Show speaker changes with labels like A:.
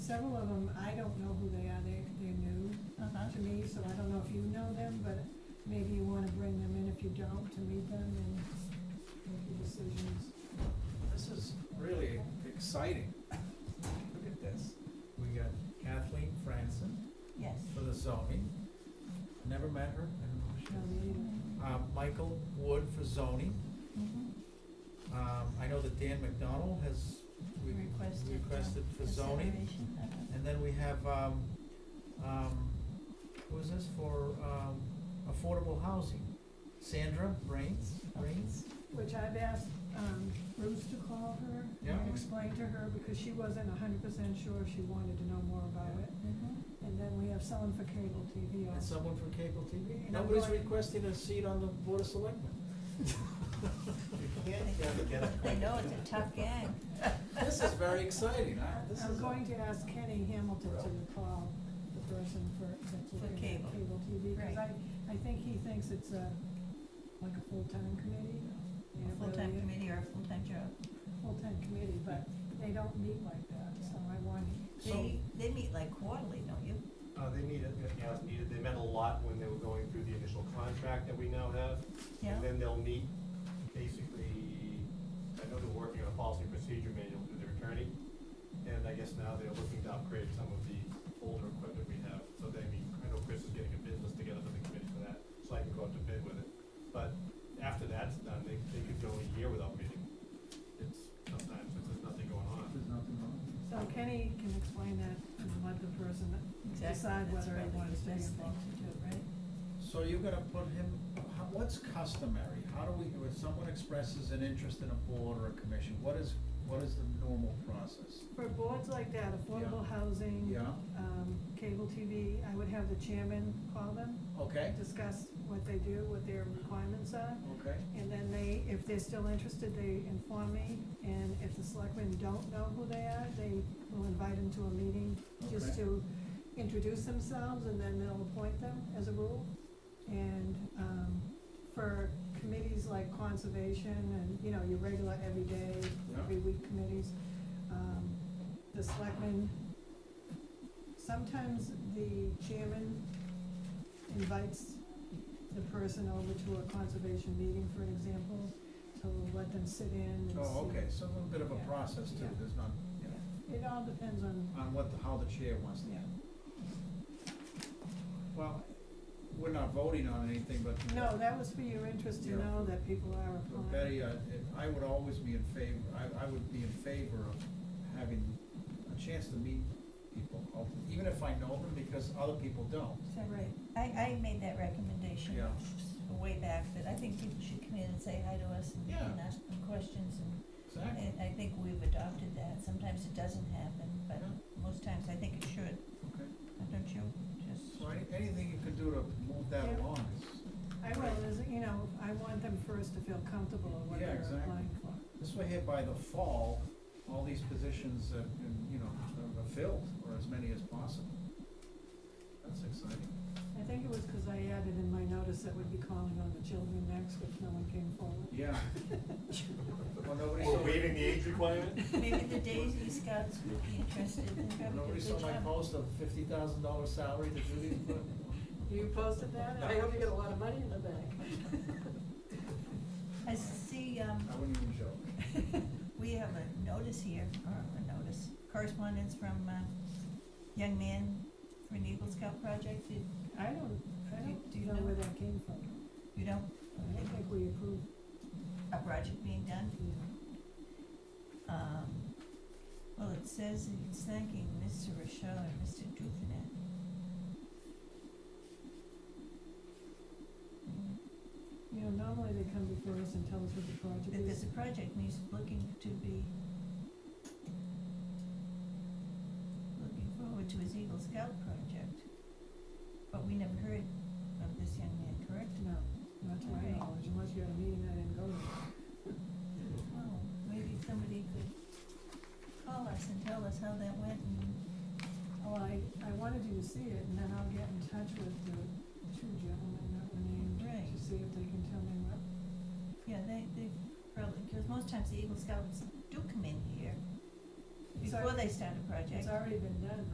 A: several of them, I don't know who they are, they, they're new
B: Uh-huh.
A: to me, so I don't know if you know them, but maybe you wanna bring them in if you don't, to meet them and make your decisions.
C: This is really exciting. Look at this. We got Kathleen Franson
B: Yes.
C: for the zoning. Never met her, I don't know who she
A: No,
C: is.
A: me either.
C: Uh, Michael Wood for zoning.
B: Mhm.
C: Um, I know that Dan McDonald has re-
B: Requested, uh,
C: requested for zoning.
B: Consideration, uh-huh.
C: And then we have, um, um, who is this for, um, affordable housing? Sandra Rains, Rains?
A: Which I've asked, um, Bruce to call her
C: Yeah.
A: and explain to her, because she wasn't hundred percent sure, she wanted to know more about it.
B: Mhm.
A: And then we have someone for cable TV
C: And
A: also.
C: someone from cable TV?
A: And I'm
C: Nobody's
A: going-
C: requested a seat on the Board of Selectmen.
B: They know it's a tough gang.
C: This is very exciting, huh? This
A: I'm
C: is-
A: going to ask Kenny Hamilton to call the person for, that's
B: For
A: looking
B: cable.
A: at cable TV, because I,
B: Right.
A: I think he thinks it's a, like a full-time committee. and it
B: A full-time
A: really is.
B: committee or a full-time job.
A: Full-time committee, but they don't meet like that, so I want,
B: They, they meet like quarterly, don't you?
D: Uh, they need it, if as needed, they met a lot when they were going through the initial contract that we now have.
B: Yeah?
D: And then they'll meet, basically, I know they're working on a policy procedure manual through their attorney. And I guess now they're looking to upgrade some of the older equipment we have, so they meet, I know Chris is getting a bid list together for the committee for that, so I can go out to bid with it. But after that's done, they, they could go a year without meeting. It's sometimes, if there's nothing going on.
C: There's nothing wrong.
A: so Kenny can explain that and let the person,
B: Exactly.
A: Decide
B: That's
A: whether he
B: probably
A: wants to
B: the
A: be
B: best thing
A: involved.
B: to do, right?
C: So you're gonna put him, how- what's customary? How do we, when someone expresses an interest in a board or a commission, what is, what is the normal process?
A: for boards like that, affordable housing.
C: Yeah,
A: um, cable TV, I would have the chairman call them,
C: okay,
A: discuss what they do, what their requirements are.
C: okay.
A: And then they, if they're still interested, they inform me, and if the selectmen don't know who they are, they will invite them to a meeting just
C: Okay.
A: to introduce themselves, and then they'll appoint them as a rule. And, um, for committees like conservation and, you know, your regular everyday,
C: Yeah.
A: every week committees, um, the selectmen, sometimes the chairman invites the person over to a conservation meeting, for example, to let them sit in and see.
C: Oh, okay, so a little bit of a
A: Yeah.
C: process too,
A: Yeah.
C: there's not, yeah,
A: It all depends on,
C: on what, the- how the chair wants to.
A: yeah.
C: Well, we're not voting on anything, but
A: No, that was for your interest to
C: Yeah.
A: know that people are
C: Well,
A: applying.
C: Betty, uh, I, if- I would always be in favor, I, I would be in favor of having a chance to meet people, ulti- even if I know them, because other people don't.
B: Is that right? I, I made that recommendation
C: Yeah.
B: way back, that I think people should come in and say hi to us and-
C: Yeah.
B: and ask them questions and
C: Exactly.
B: And I think we've adopted that. Sometimes it doesn't happen, but most times I think it should,
C: Okay,
B: don't you? Just,
C: so any, anything you can do to move that
A: Yeah.
C: along is,
A: I will, is, you know, I want them first to feel comfortable in what they're
C: Yeah, exactly.
A: applying for.
C: this way here by the fall, all these positions have been, you know, are filled, or as many as possible. That's exciting.
A: I think it was because I added in my notice that would be calling on the children next, which no one came forward.
C: Yeah. Well, nobody
D: Or
C: saw,
D: waiving the age requirement?
B: maybe the Daisy Scouts would be interested in having a
C: nobody saw
B: good
C: my
B: job.
C: post of fifty thousand dollar salary to Judy, but.
A: You posted that,
C: I hope
A: you get a lot of money in the bank.
B: I see, um,
C: I wouldn't even joke.
B: we have a notice here, or a notice, correspondence from, uh, young man for an Eagle Scout project. Did,
A: I don't, I
B: Do- do you
A: don't know
B: know?
A: where that came from.
B: you know,
A: I don't think we approved
B: a project being done?
A: the,
B: Um, well, it says it's thanking Mr. Rochelle and Mr. Duvenet. Mm,
A: you know, normally they come before us and tell us what the project
B: That there's
A: is.
B: a project and he's looking to be, looking forward to his Eagle Scout project. But we never heard of this young man, correct?
A: No, not to my
B: Right.
A: knowledge, unless you had a meeting I didn't go to.
B: Oh, maybe somebody could call us and tell us how that went and,
A: Well, I, I wanted you to see it, and then I'll get in touch with the two gentlemen that were named,
B: Right.
A: to see if they can tell me what.
B: yeah, they, they probably, because most times the Eagle Scouts do come in here.
A: It's
B: before
A: already-
B: they start a project.
A: It's already been done.